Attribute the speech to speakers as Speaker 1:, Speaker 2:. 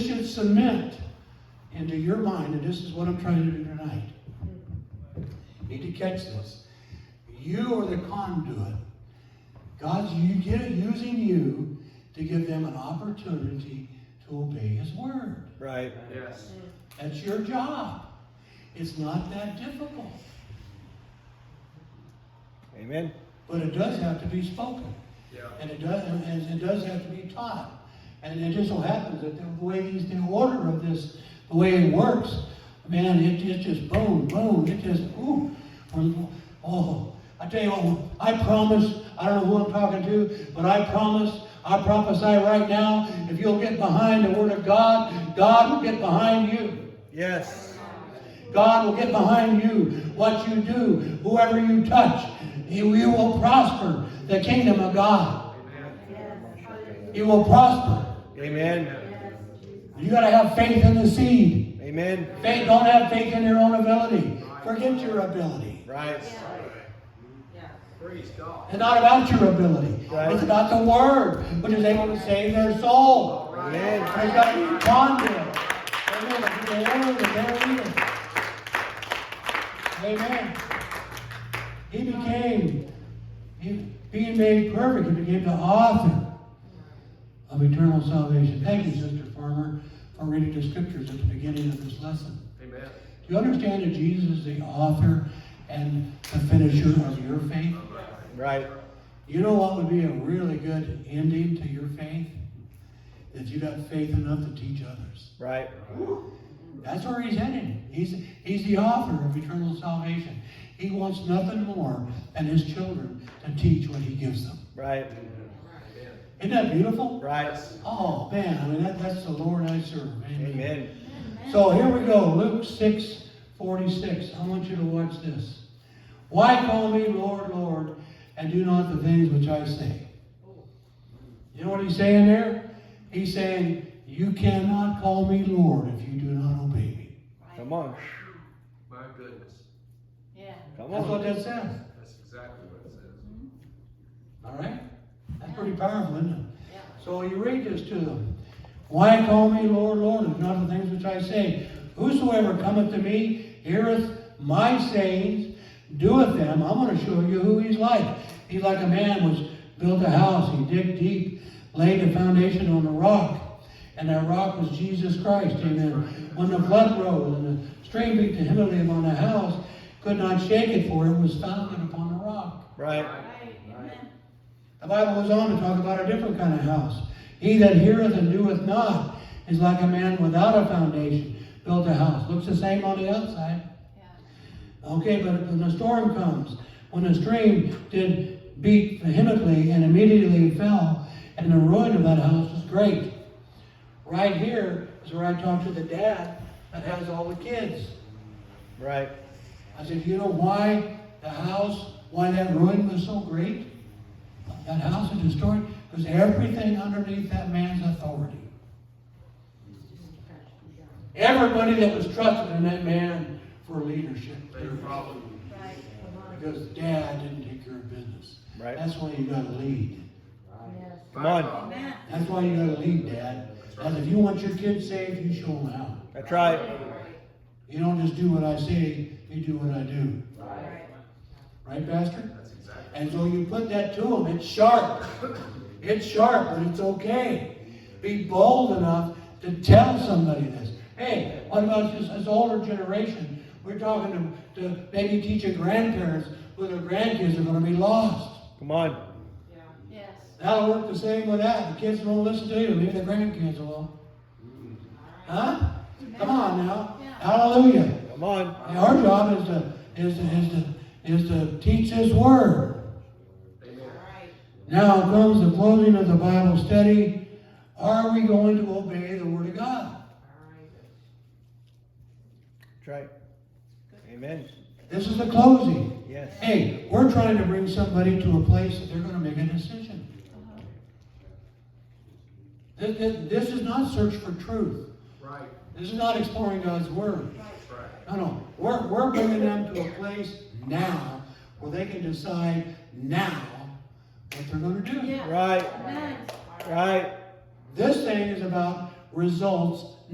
Speaker 1: cement into your mind, and this is what I'm trying to do tonight. You need to catch this. You are the conduit. God's you get, using you to give them an opportunity to obey His word.
Speaker 2: Right.
Speaker 3: Yes.
Speaker 1: That's your job. It's not that difficult,
Speaker 2: Amen.
Speaker 1: but it does have to be spoken.
Speaker 3: Yeah.
Speaker 1: And it does, and it does have to be taught. And it just so happens that the way these, the order of this, the way it works, man, it, it just boom, boom, it just, ooh. um, Oh, I tell you what, I promise, I don't know who I'm talking to, but I promise, I prophesy right now, if you'll get behind the word of God, God will get behind you.
Speaker 2: Yes.
Speaker 1: God will get behind you. What you do, whoever you touch, you, you will prosper the kingdom of God. You will prosper.
Speaker 2: Amen.
Speaker 1: You got to have faith in the seed.
Speaker 2: Amen.
Speaker 1: Faith, don't have faith in your own ability. Forget your ability.
Speaker 2: Right.
Speaker 3: Praise God.
Speaker 1: It's not about your ability.
Speaker 2: Right.
Speaker 1: It's about the word, which is able to save their soul.
Speaker 2: Amen.
Speaker 1: There's got to be conduit. Amen. If you're the owner, they're leading. Amen. He became, he, being made perfect, he became the author of eternal salvation. Thank you, Sister Farmer, for reading the scriptures at the beginning of this lesson.
Speaker 3: Amen.
Speaker 1: Do you understand that Jesus is the author and the finisher of your faith?
Speaker 2: Right.
Speaker 1: You know what would be a really good ending to your faith? That you got faith enough to teach others.
Speaker 2: Right.
Speaker 1: That's where he's headed. He's, he's the author of eternal salvation. He wants nothing more than his children to teach what he gives them.
Speaker 2: Right.
Speaker 1: Isn't that beautiful?
Speaker 2: Right.
Speaker 1: Oh, man, I mean, that, that's the Lord I serve.
Speaker 2: Amen.
Speaker 1: So here we go, Luke 6 46. I want you to watch this. Why call me Lord, Lord, and do not the things which I say? You know what he's saying there? He's saying, You cannot call me Lord if you do not obey me.
Speaker 2: Come on.
Speaker 3: My goodness.
Speaker 4: Yeah.
Speaker 2: Come
Speaker 1: That's what
Speaker 2: on.
Speaker 1: that says.
Speaker 3: That's exactly what it says.
Speaker 1: All right? That's pretty powerful, isn't it?
Speaker 4: Yeah.
Speaker 1: So you read this to them. Why call me Lord, Lord, and not the things which I say? Whosoever cometh to me heareth my sayings, doeth them. I'm going to show you who he's like. He's like a man which built a house. He digged deep, laid the foundation on a rock, and that rock was Jesus Christ. Amen. When the flood rose and the stream beat the heavily upon the house, could not shake it, for it was founded upon the rock.
Speaker 2: Right.
Speaker 4: Right. Amen.
Speaker 1: The Bible goes on to talk about a different kind of house. He that heareth and doeth not is like a man without a foundation, built a house. Looks the same on the outside.
Speaker 4: Yeah.
Speaker 1: Okay, but when the storm comes, when the stream did beat vehemently and immediately fell, and the ruin of that house was great. Right here is where I talked to the dad that has all the kids.
Speaker 2: Right.
Speaker 1: I said, you know why the house, why that ruin was so great? That house was destroyed because everything underneath that man's authority. Everybody that was trusted in that man for leadership.
Speaker 3: They were probably.
Speaker 4: Right. Come on.
Speaker 1: Because dad didn't take care of business.
Speaker 2: Right.
Speaker 1: That's why you gotta lead.
Speaker 4: Yes.
Speaker 2: Come on.
Speaker 4: Amen.
Speaker 1: That's why you gotta lead, dad. And if you want your kids saved, you show them how.
Speaker 2: That's right.
Speaker 1: You don't just do what I say, you do what I do.
Speaker 4: Right.
Speaker 1: Right, Pastor?
Speaker 3: That's exactly.
Speaker 1: And so you put that to them, it's sharp. It's sharp, but it's okay. Be bold enough to tell somebody this. Hey, what about this, this older generation? We're talking to, to maybe teach your grandparents who their grandkids are going to be lost.
Speaker 2: Come on.
Speaker 4: Yes.
Speaker 1: That'll work the same with that. The kids won't listen to you, leave their grandkids alone. Huh? Come on now.
Speaker 4: Yeah.
Speaker 1: Hallelujah.
Speaker 2: Come on.
Speaker 1: And our job is to, is to, is to, is to teach His Word.
Speaker 3: Amen.
Speaker 4: Right.
Speaker 1: Now comes the closing of the Bible study. Are we going to obey the Word of God?
Speaker 2: That's right. Amen.
Speaker 1: This is the closing.
Speaker 2: Yes.
Speaker 1: Hey, we're trying to bring somebody to a place that they're going to make a decision. This, this- this is not search for truth.
Speaker 3: Right.
Speaker 1: This is not exploring God's Word.
Speaker 3: That's right.
Speaker 1: No, no. We're, we're bringing them to a place now where they can decide now what they're going to do.
Speaker 4: Yeah.
Speaker 2: Right.
Speaker 4: Amen.
Speaker 2: Right.
Speaker 1: This thing is about results